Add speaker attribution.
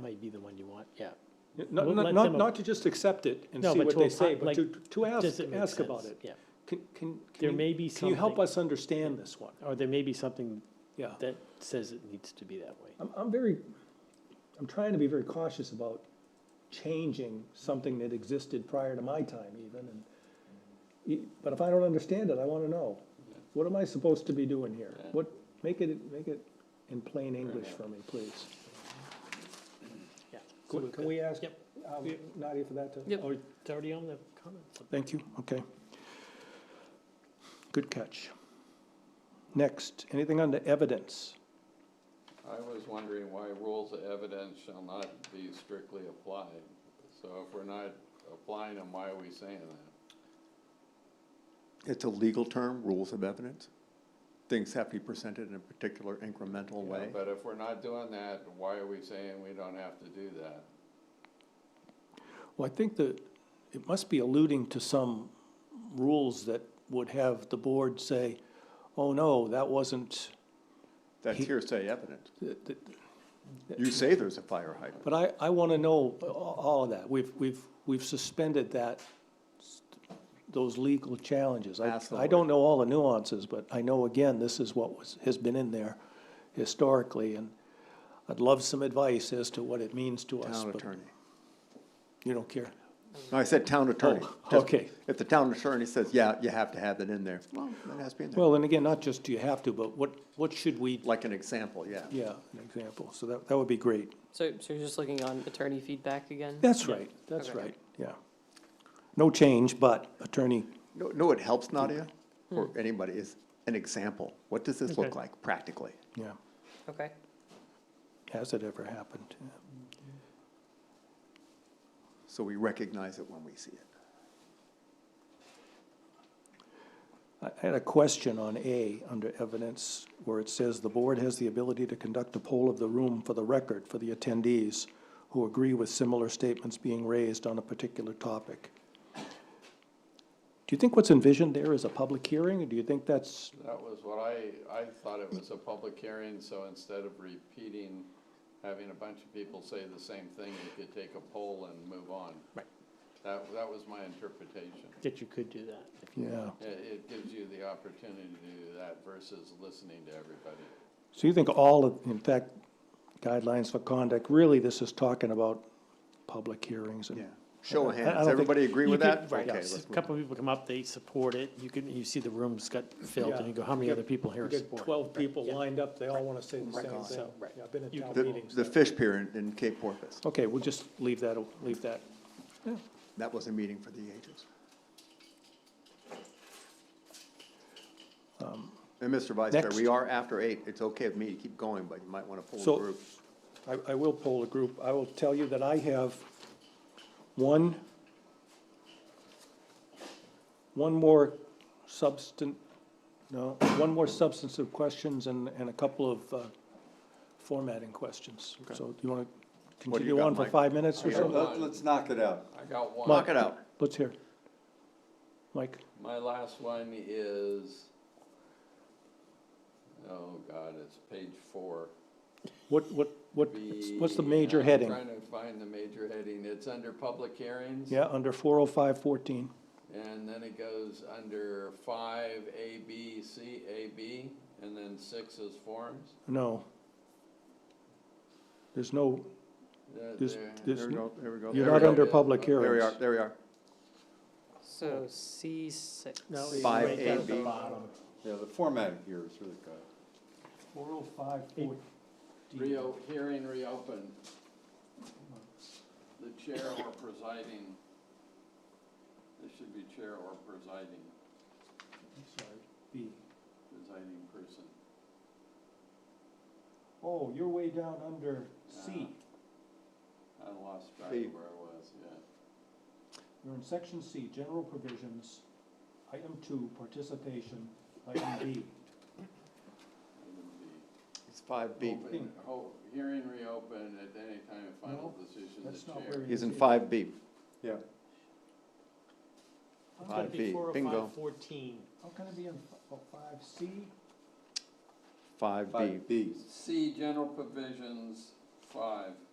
Speaker 1: might be the one you want, yeah.
Speaker 2: Not,
Speaker 1: We'll
Speaker 2: not,
Speaker 1: let
Speaker 2: not,
Speaker 1: them-
Speaker 2: not to just accept it and
Speaker 1: No,
Speaker 2: see
Speaker 1: but
Speaker 2: what
Speaker 1: to
Speaker 2: they
Speaker 1: opi-
Speaker 2: say, but
Speaker 1: like,
Speaker 2: to, to
Speaker 1: Does
Speaker 2: ask,
Speaker 1: it make
Speaker 2: ask about
Speaker 1: sense?
Speaker 2: it.
Speaker 1: Yeah,
Speaker 2: Can, can. can
Speaker 1: There
Speaker 2: you-
Speaker 1: may be
Speaker 2: Can you help
Speaker 1: something.
Speaker 2: us understand this one?
Speaker 1: or there may be something
Speaker 2: Yeah.
Speaker 1: that says it needs to be that way.
Speaker 2: I'm, I'm very, I'm trying to be very cautious about changing something that existed prior to my time even, and, y- but if I don't understand it, I wanna know. What am I supposed to be doing here?
Speaker 3: Yeah.
Speaker 2: What, make it, make it in plain English for me, please.
Speaker 1: Yeah. So
Speaker 2: Could-
Speaker 1: we've
Speaker 2: Can
Speaker 1: got-
Speaker 2: we ask
Speaker 1: Yep.
Speaker 2: um, Nadia for that too?
Speaker 1: Or oh, it's already on the comments.
Speaker 2: Thank you, okay. Good catch. Next, anything on the evidence?
Speaker 3: I was wondering why rules of evidence shall not be strictly applied. So if we're not applying them, why are we saying that?
Speaker 4: It's a legal term, rules of evidence. Things have to be presented in a particular incremental
Speaker 3: You know,
Speaker 4: way.
Speaker 3: But if we're not doing that, why are we saying we don't have to do that?
Speaker 2: Well, I think that it must be alluding to some rules that would have the board say, oh, no, that wasn't,
Speaker 4: That's hearsay evidence.
Speaker 2: th- th-
Speaker 4: You say there's a fire hydrant.
Speaker 2: but I, I want to know a- all of that. We've, we've, we've suspended that, those legal challenges. I,
Speaker 4: Ask the
Speaker 2: I don't know all the nuances, but I know, again, this is what was, has been in there historically, and I'd love some advice as to what it means to us.
Speaker 4: Town
Speaker 2: but
Speaker 4: attorney.
Speaker 2: You don't care?
Speaker 4: No, I said town attorney.
Speaker 2: Oh,
Speaker 4: Just-
Speaker 2: okay.
Speaker 4: If the town attorney says, yeah, you have to have it in there, well, then it has to be in there.
Speaker 2: Well, and again, not just do you have to, but what, what should we,
Speaker 4: Like an example, yeah.
Speaker 2: yeah, an example. So that, that would be great.
Speaker 5: So, so you're just looking on attorney feedback again?
Speaker 2: That's right, that's
Speaker 5: Okay.
Speaker 2: right, yeah. No change, but attorney,
Speaker 4: No, no, it helps Nadia or anybody is an example. What does this look
Speaker 1: Okay.
Speaker 4: like practically?
Speaker 2: yeah,
Speaker 5: Okay.
Speaker 2: has it ever happened? yeah.
Speaker 4: So we recognize it when we see it.
Speaker 2: I had a question on A, under evidence, where it says, "The board has the ability to conduct a poll of the room for the record for the attendees who agree with similar statements being raised on a particular topic." Do you think what's envisioned there is a public hearing, or do you think that's,
Speaker 3: That was what I, I thought it was a public hearing, so instead of repeating, having a bunch of people say the same thing, you could take a poll and move on.
Speaker 1: Right.
Speaker 3: That, that was my interpretation.
Speaker 1: That you could do that. if you-
Speaker 2: yeah?
Speaker 3: It, it gives you the opportunity to do that versus listening to everybody.
Speaker 2: So you think all of, in fact, guidelines for conduct, really this is talking about public hearings and
Speaker 4: Yeah. Show
Speaker 2: I- I
Speaker 4: of hands.
Speaker 2: don't think-
Speaker 4: Everybody agree
Speaker 1: You
Speaker 4: with
Speaker 1: could-
Speaker 4: that?
Speaker 1: Right,
Speaker 4: Okay,
Speaker 1: yes.
Speaker 4: let's
Speaker 1: a
Speaker 4: move
Speaker 1: couple of people come up, they support it, you can, you see the room's got filled, and you go, how many
Speaker 2: Yeah.
Speaker 1: other people here
Speaker 2: You get
Speaker 1: support?
Speaker 2: twelve people
Speaker 1: Yeah.
Speaker 2: lined up, they all wanna say the same thing.
Speaker 1: So, right.
Speaker 2: Yeah, I've been in town
Speaker 4: The,
Speaker 2: meetings.
Speaker 4: the fish pier in, in Cape Porpoise,
Speaker 2: Okay, we'll just leave that, leave that.
Speaker 4: that was a meeting for the ages. And Mr. Vice Chair, we
Speaker 2: Um, next.
Speaker 4: are after eight. It's okay with me to keep going, but you might want to pull
Speaker 2: So-
Speaker 4: the group.
Speaker 2: I, I will poll a group. I will tell you that I have one, one more substant, no, one more substantive questions and, and a couple of uh, formatting questions. So do you want to
Speaker 4: What do you
Speaker 2: continue
Speaker 4: got,
Speaker 2: on for
Speaker 4: Mike?
Speaker 2: five minutes or
Speaker 3: I got
Speaker 2: so?
Speaker 3: one. Let- let's
Speaker 6: Let's knock it out.
Speaker 3: I got one.
Speaker 4: Knock it out.
Speaker 2: Let's hear. Mike,
Speaker 3: My last one is, oh God, it's page four.
Speaker 2: what, what, what, what's the major
Speaker 3: I'm
Speaker 2: heading?
Speaker 3: Trying to find the major heading. It's under public hearings.
Speaker 2: Yeah, under four oh five fourteen.
Speaker 3: And then it goes under five, A, B, C, A, B, and then six is forms.
Speaker 2: No. There's no,
Speaker 3: That
Speaker 2: there's,
Speaker 3: there-
Speaker 2: there's,
Speaker 4: There we go, there we go.
Speaker 2: you're
Speaker 3: There
Speaker 2: not
Speaker 3: we
Speaker 2: under
Speaker 3: go.
Speaker 2: public
Speaker 3: There
Speaker 2: hearings.
Speaker 4: There we are, there we are.
Speaker 5: So C six.
Speaker 1: No, it's
Speaker 4: Five
Speaker 1: right
Speaker 4: A,
Speaker 1: down at the
Speaker 4: B.
Speaker 1: bottom.
Speaker 6: Yeah, the formatting here is really good.
Speaker 2: Four oh five
Speaker 1: Eight.
Speaker 2: oh.
Speaker 3: Reo, hearing reopened. The chair or presiding. This should be chair or presiding,
Speaker 2: B.
Speaker 3: presiding person.
Speaker 2: Oh, you're way down under C.
Speaker 3: I lost track
Speaker 4: See.
Speaker 3: of where I was, yeah.
Speaker 2: You're in section C, general provisions, item two, participation, item B.
Speaker 3: Item B.
Speaker 4: It's five B.
Speaker 3: Open- ho- Hearing reopened at any time of final decision,
Speaker 2: That's
Speaker 3: the
Speaker 2: not where
Speaker 3: chair.
Speaker 2: he
Speaker 4: He's
Speaker 2: is.
Speaker 4: in five B.
Speaker 6: Yeah.
Speaker 2: How
Speaker 1: It's gotta
Speaker 2: can-
Speaker 4: Five B,
Speaker 1: be four oh
Speaker 4: bingo.
Speaker 1: five fourteen.
Speaker 2: How can it be in oh, five C?
Speaker 4: Five B.
Speaker 6: Five B.
Speaker 3: C, general provisions, five.